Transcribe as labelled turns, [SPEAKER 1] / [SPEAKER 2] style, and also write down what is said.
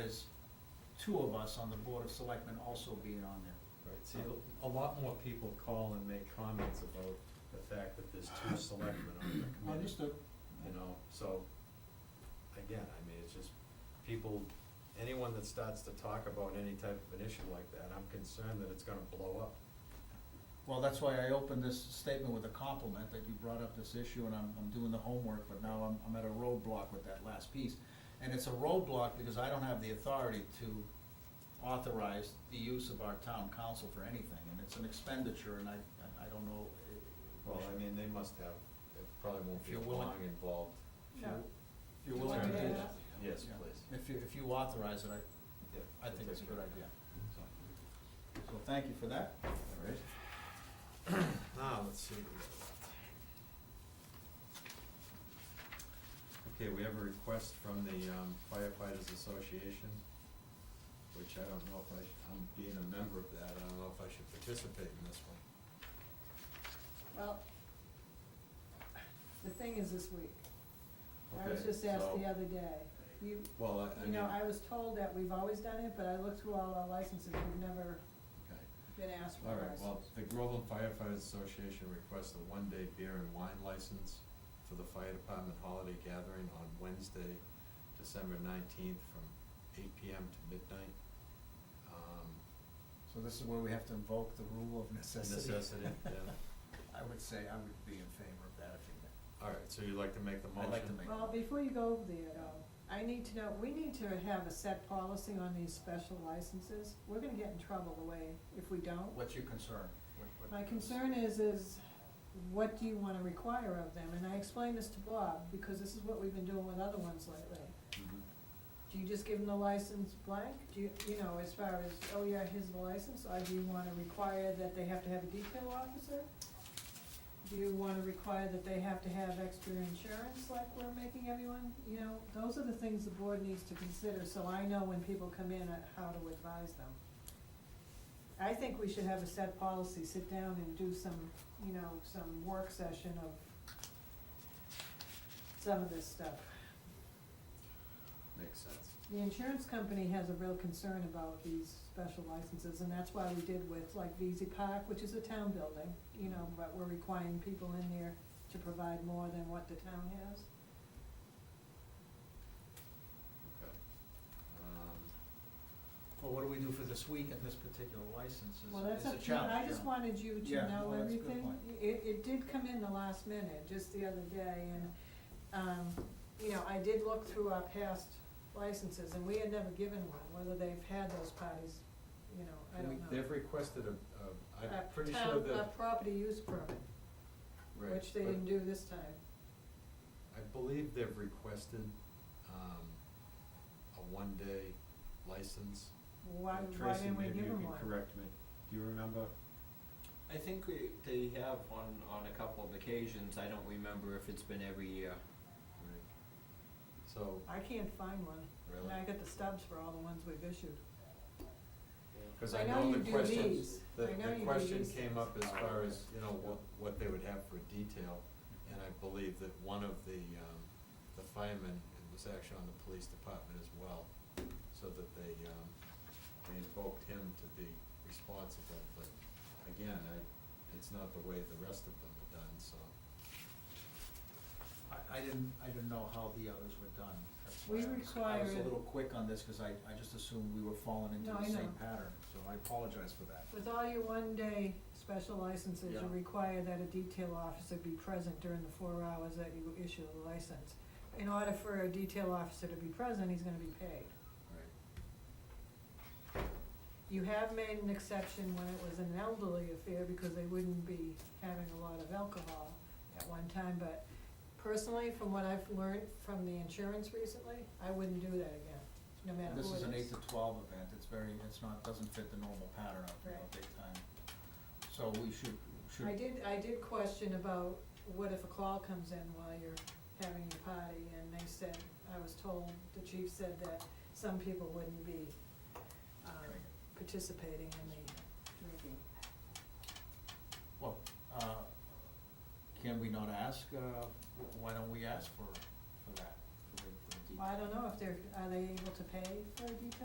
[SPEAKER 1] two of us on the Board of Selectmen also being on there.
[SPEAKER 2] Right, see, a lot more people call and make comments about the fact that there's two selectmen on the committee,
[SPEAKER 1] Understood.
[SPEAKER 2] you know, so, again, I mean, it's just, people, anyone that starts to talk about any type of an issue like that, I'm concerned that it's gonna blow up.
[SPEAKER 1] Well, that's why I opened this statement with a compliment that you brought up this issue and I'm, I'm doing the homework, but now I'm, I'm at a roadblock with that last piece. And it's a roadblock because I don't have the authority to authorize the use of our town council for anything. And it's an expenditure and I, I don't know. eh,
[SPEAKER 2] Well, I mean, they must have, it probably won't
[SPEAKER 1] If
[SPEAKER 2] be
[SPEAKER 1] you're willing-
[SPEAKER 2] long involved.
[SPEAKER 1] If you-
[SPEAKER 3] No.
[SPEAKER 1] If you're willing to do
[SPEAKER 3] Yeah.
[SPEAKER 1] that.
[SPEAKER 2] Yes,
[SPEAKER 1] Yeah.
[SPEAKER 2] please.
[SPEAKER 1] If you, if you authorize it, I,
[SPEAKER 2] Yeah,
[SPEAKER 1] I think
[SPEAKER 2] we'll
[SPEAKER 1] it's a
[SPEAKER 2] take
[SPEAKER 1] good
[SPEAKER 2] care.
[SPEAKER 1] idea. So- So thank you for that.
[SPEAKER 2] All right. Now, Ah, let's see. what we got left. Okay, we have a request from the um, firefighters association, which I don't know if I, sh- I'm being a member of that, I don't know if I should participate in this one.
[SPEAKER 3] Well, the thing is this week, I was
[SPEAKER 2] Okay,
[SPEAKER 3] just asked the
[SPEAKER 2] so-
[SPEAKER 3] other day, you,
[SPEAKER 2] Well, I, I
[SPEAKER 3] you
[SPEAKER 2] mean.
[SPEAKER 3] know, I was told that we've always done it, but I looked through all our licenses, we've never
[SPEAKER 2] Okay.
[SPEAKER 3] been asked for
[SPEAKER 2] All
[SPEAKER 3] a
[SPEAKER 2] right,
[SPEAKER 3] license.
[SPEAKER 2] well, the Groveland Firefighters Association requests a one-day beer and wine license for the fire department holiday gathering on Wednesday, December nineteenth, from eight PM to midnight. Um,
[SPEAKER 1] So this is where we have to invoke the rule of necessity.
[SPEAKER 2] Necessity, yeah.
[SPEAKER 1] I would say I would be in favor of that if you may.
[SPEAKER 2] All right, so you'd like to make the motion?
[SPEAKER 1] I'd like to make-
[SPEAKER 3] Well, before you go over there though, I need to know, we need to have a set policy on these special licenses. We're gonna get in trouble the way, if we don't.
[SPEAKER 1] What's your concern? What- what-
[SPEAKER 3] Oh. My concern is, is what do you wanna require of them? And I explained this to Bob, because this is what we've been doing with other ones lately.
[SPEAKER 1] Mm-hmm.
[SPEAKER 2] Mhm.
[SPEAKER 3] Do you just give them the license blank? Do you, you know, as far as, oh yeah, here's the license, or do you wanna require that they have to have a detail officer? Do you wanna require that they have to have extra insurance like we're making everyone, you know? Those are the things the board needs to consider, so I know when people come in, uh, how to advise them. I think we should have a set policy, sit down and do some, you know, some work session of some of this stuff.
[SPEAKER 2] Makes sense.
[SPEAKER 3] The insurance company has a real concern about these special licenses, and that's why we did with like VZ Park, which is a town building, you know, but we're requiring people in there to provide more than what the town has.
[SPEAKER 2] Okay. Um,
[SPEAKER 1] Well, what do we do for this week and this particular license is,
[SPEAKER 3] Well, that's
[SPEAKER 1] is a
[SPEAKER 3] up to you, I
[SPEAKER 1] challenge,
[SPEAKER 3] just
[SPEAKER 1] yeah.
[SPEAKER 3] wanted you
[SPEAKER 1] Yeah,
[SPEAKER 3] to know
[SPEAKER 1] well, that's a good
[SPEAKER 3] everything.
[SPEAKER 1] point.
[SPEAKER 3] It, it did come in the last minute, just the other day, and, um, you know, I did look through our past licenses, and we had never given one, whether they've had those parties, you know, I
[SPEAKER 2] can we-
[SPEAKER 3] don't know.
[SPEAKER 2] They've requested a, a,
[SPEAKER 3] A
[SPEAKER 2] I'm pretty
[SPEAKER 3] town-
[SPEAKER 2] sure
[SPEAKER 3] A
[SPEAKER 2] that,
[SPEAKER 3] property use permit.
[SPEAKER 2] right.
[SPEAKER 3] Which they
[SPEAKER 2] but-
[SPEAKER 3] didn't do this time.
[SPEAKER 2] I believe they've requested, um, a one-day license.
[SPEAKER 3] Why,
[SPEAKER 2] And
[SPEAKER 3] why didn't we
[SPEAKER 2] Tracy,
[SPEAKER 3] give
[SPEAKER 2] maybe
[SPEAKER 3] them
[SPEAKER 2] you
[SPEAKER 3] one?
[SPEAKER 2] can correct me, do you remember?
[SPEAKER 4] I think we, they have on, on a couple of occasions, I don't remember if it's been every year.
[SPEAKER 2] Right. So,
[SPEAKER 3] I can't find one.
[SPEAKER 2] Really?
[SPEAKER 3] And I got the stubs for all the ones we've issued.
[SPEAKER 2] cause
[SPEAKER 3] I
[SPEAKER 2] I
[SPEAKER 3] know
[SPEAKER 2] know the
[SPEAKER 3] you do
[SPEAKER 2] question,
[SPEAKER 3] these.
[SPEAKER 2] the,
[SPEAKER 3] I know you
[SPEAKER 2] the
[SPEAKER 3] do
[SPEAKER 2] question
[SPEAKER 3] these.
[SPEAKER 2] came up as far as, you know, what, what they would have for detail. And I believe that one of the, um, the firemen was actually on the police department as well, so that they, um, they invoked him to be responsible, but again, I, it's not the way the rest of them are done, so.
[SPEAKER 1] I, I didn't, I didn't know how the others were done. That's why I
[SPEAKER 3] We
[SPEAKER 1] was- I was a
[SPEAKER 3] require-
[SPEAKER 1] little quick on this, cause I, I just assumed we were falling into
[SPEAKER 3] No,
[SPEAKER 1] the
[SPEAKER 3] I
[SPEAKER 1] same
[SPEAKER 3] know.
[SPEAKER 1] pattern, so I apologize for that.
[SPEAKER 3] With all your one-day special licenses, you
[SPEAKER 1] Yeah.
[SPEAKER 3] require that a detail officer be present during the four hours that you issue the license. In order for a detail officer to be present, he's gonna be paid.
[SPEAKER 2] Right.
[SPEAKER 3] You have made an exception when it was an elderly affair because they wouldn't be having a lot of alcohol at one time, but personally, from what I've learned from the insurance recently, I wouldn't do that again, no matter who it is.
[SPEAKER 1] This is an eight to twelve event, it's very, it's not, doesn't fit the normal pattern out there
[SPEAKER 3] Right.
[SPEAKER 1] big time. So we should, should.
[SPEAKER 3] I did, I did question about what if a call comes in while you're having your party, and they said, I was told, the chief said that some people wouldn't be, um, participating in the drinking.
[SPEAKER 1] Well, uh, can we not ask, uh, wh- why don't we ask for, for that, for the, for the detail?
[SPEAKER 3] Well, I don't know if they're, are they able to pay for a detail